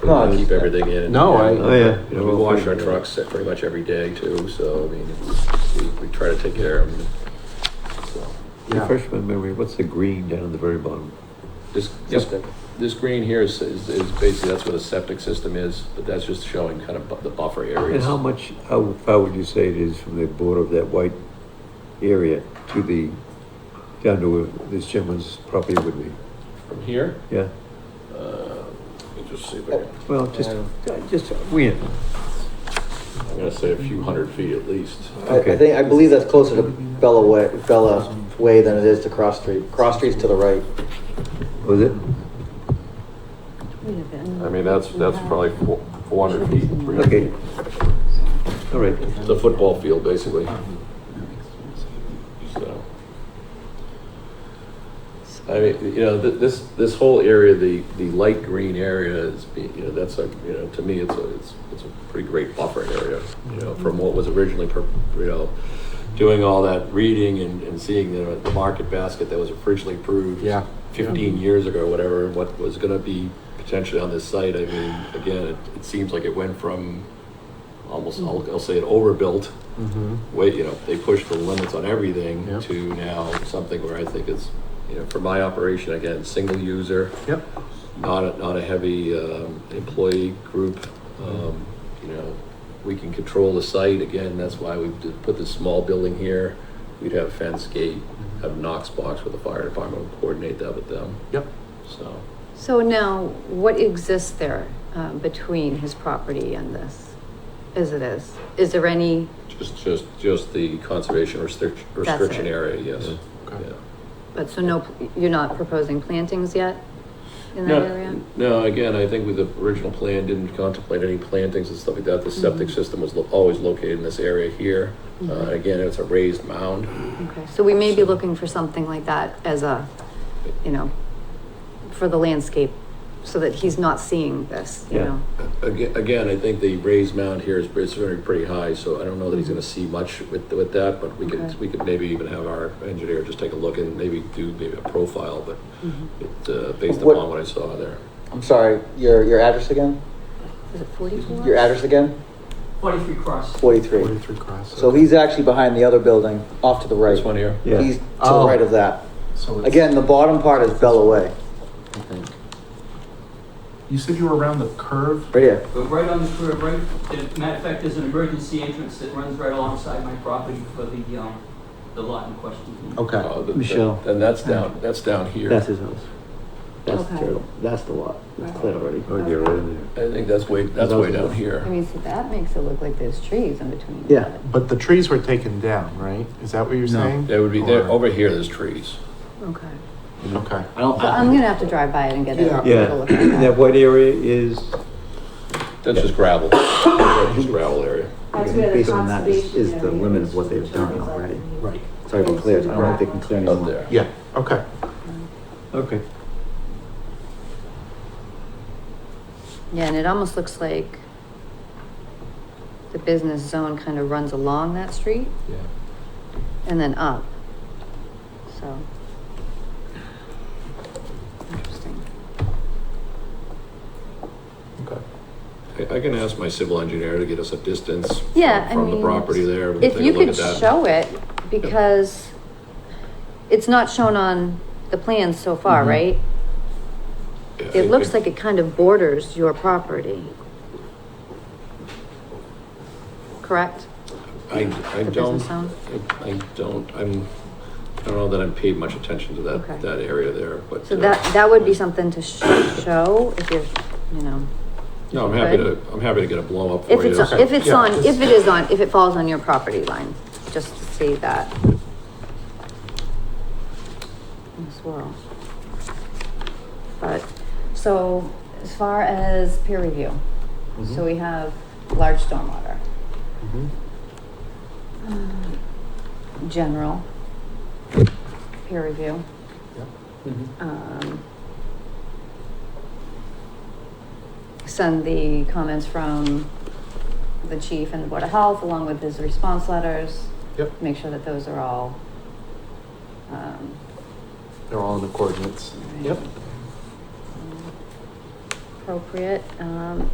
No, I keep keep it. everything in. and- No, I- Oh, yeah. You know, we wash our trucks pretty much every day too, so I mean, it's- we- we try to take care of them. Yeah. Refresh my memory, what's the green down at the very bottom? This, this, this green here is, is is basically, that's where the septic system is, but that's just showing kind of bu- the buffer And areas. how much, how far would you say it is from the border of that white area to the, down to where this gentleman's property would be? From here, uh, Yeah, let me just see if I can, well, just, just, we, I'm gonna say a few hundred feet at least. I, I Okay. think, I believe that's closer to Bella Way, Bella Way than it is to Cross Street. Cross Street's to the right. was it? I mean, that's, that's probably four, four hundred feet, three hundred Okay. feet. All right, It's a football field, basically, so. I mean, you know, th- this, this whole area, the, the light green area is, be- you know, that's a, you know, to me, it's a, it's, it's a pretty great buffer area, you know, from what was originally, per- you know, doing all that reading and, and seeing the, the market basket that was originally approved Yeah. fifteen years ago, or whatever, and what was gonna be potentially on this site, I mean, again, it, it seems like it went from almost, I'll, I'll say it overbuilt, Mm-hmm. wait, you know, they pushed the limits on everything Yep. to now something where I think it's, you know, for my operation, again, single user, Yep. not a, not a heavy, um, employee group. Um, you know, we can control the site, again, that's why we did put this small building here. We'd have fence gate, have Knox box with the fire department, we'll coordinate that with them, Yep. so. So now, what exists there um, between his property and this, as it is? Is there any, Just, just, just the conservation restriction, restriction area, yes. Okay. Yeah. but so no, you're not proposing plantings yet in that No, area? No, again, I think with the original plan, didn't contemplate any plantings and stuff like that. The septic Mm-hmm. system was lo- always located in this area here. Uh, again, it's a raised mound. Okay, so we may be looking for something like that as a, you know, for the landscape, so that he's not seeing this, you Yeah. know? Again, again, I think the raised mound here is, is very pretty high, so I don't know that he's gonna see much with, with that, but we Mm-hmm. Okay. could, we could maybe even have our engineer just take a look and maybe do maybe a profile, but it, uh, based What- upon what I saw there. I'm sorry, your, your address again? Is it forty-four? Your address again? Forty-three Cross. Forty-three. Forty-three cross. So he's actually behind the other building, off to the right. This one here? Yeah. He's to the Oh. right of that. So it's- Again, the bottom part is Bella Way, I think. You said you were around the curve? right here. But right on the curve, right, as a matter of fact, there's an emergency entrance that runs right alongside my property for the, um, the lot in question. Okay. Uh, th- Michelle. And that's down, that's down here. that's his house. That's the Okay. turtle, that's the lot, that's Right. clear already. Oh, yeah, right in I think that's way, that's way down here. I mean, so that makes it look like there's trees in between. Yeah. But the trees were taken down, right? Is that what you're No. saying? They would be, there Or- over here, there's trees. Okay, Okay. I don't. so I'm gonna have to drive by it and get a, Yeah. get a look Yeah, at that that. white area is, That's just gravel. That's just gravel area. That's where the Based on that is- conservation is the area limit of what they've done is. already. Right. sorry about clear, I don't know if they can clear Up anymore. there. Yeah, okay. Okay. Yeah, and it almost looks like the business zone kind of runs along that street and then up. So. Interesting. I, I can ask my civil engineer to get us a distance. from- Yeah, I From the mean, property there. We'll If take a you look could at that. show it, because it's not shown on the plans so far, right? Mm-hmm. Yeah, I It looks think- like it kind of borders your property. Correct? I, I the don't, business zone? I I don't, I'm, I don't know that I'm paid much attention to Okay. that, that area there, but. So uh, that, that would be something to sh- show if you're, you know, No, I'm happy to, good. I'm happy to get a blow up for you. if it's, so- if it's Yeah, on, just- if it is on, if it falls on your property line, just to see that. As well. But, so as far as peer review, Mm-hmm. so we have large stormwater. Mm-hmm. Um, General peer review. Um, Send the comments from the chief and the board of health along with his response letters. Yep. Make sure that those are all. um, They're all in the coordinates. right. Yep. appropriate, um,